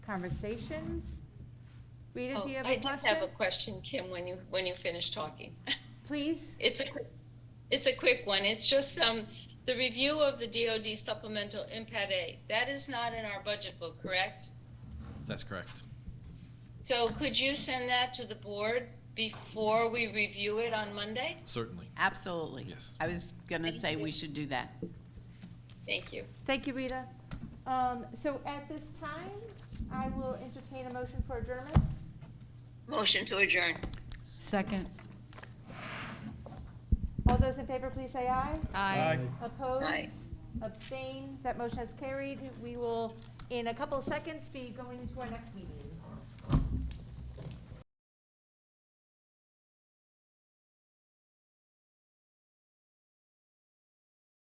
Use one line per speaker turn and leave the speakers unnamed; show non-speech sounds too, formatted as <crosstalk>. conversations. Rita,
Oh,
do you have
I
a
just have a
question?
question, Kim, when you, when you finish talking. <laughs>
Please?
It's a, quick- it's a quick one. It's just, um, the review of the DOD supplemental impact aid. That is not in our budget book, correct?
That's correct.
So could you send that to the board before we review it on Monday?
Certainly.
Absolutely.
Yes.
I was gonna say
you.
we should do that.
Thank you.
Thank you, Rita. Um, so at this time, I will entertain a motion for adjournment.
Motion to adjourn.
Second.
All those in favor, please say aye.
Aye.
Aye.
Opposed? Abstain? That motion is carried. We will, in a couple of seconds, be going into our next meeting.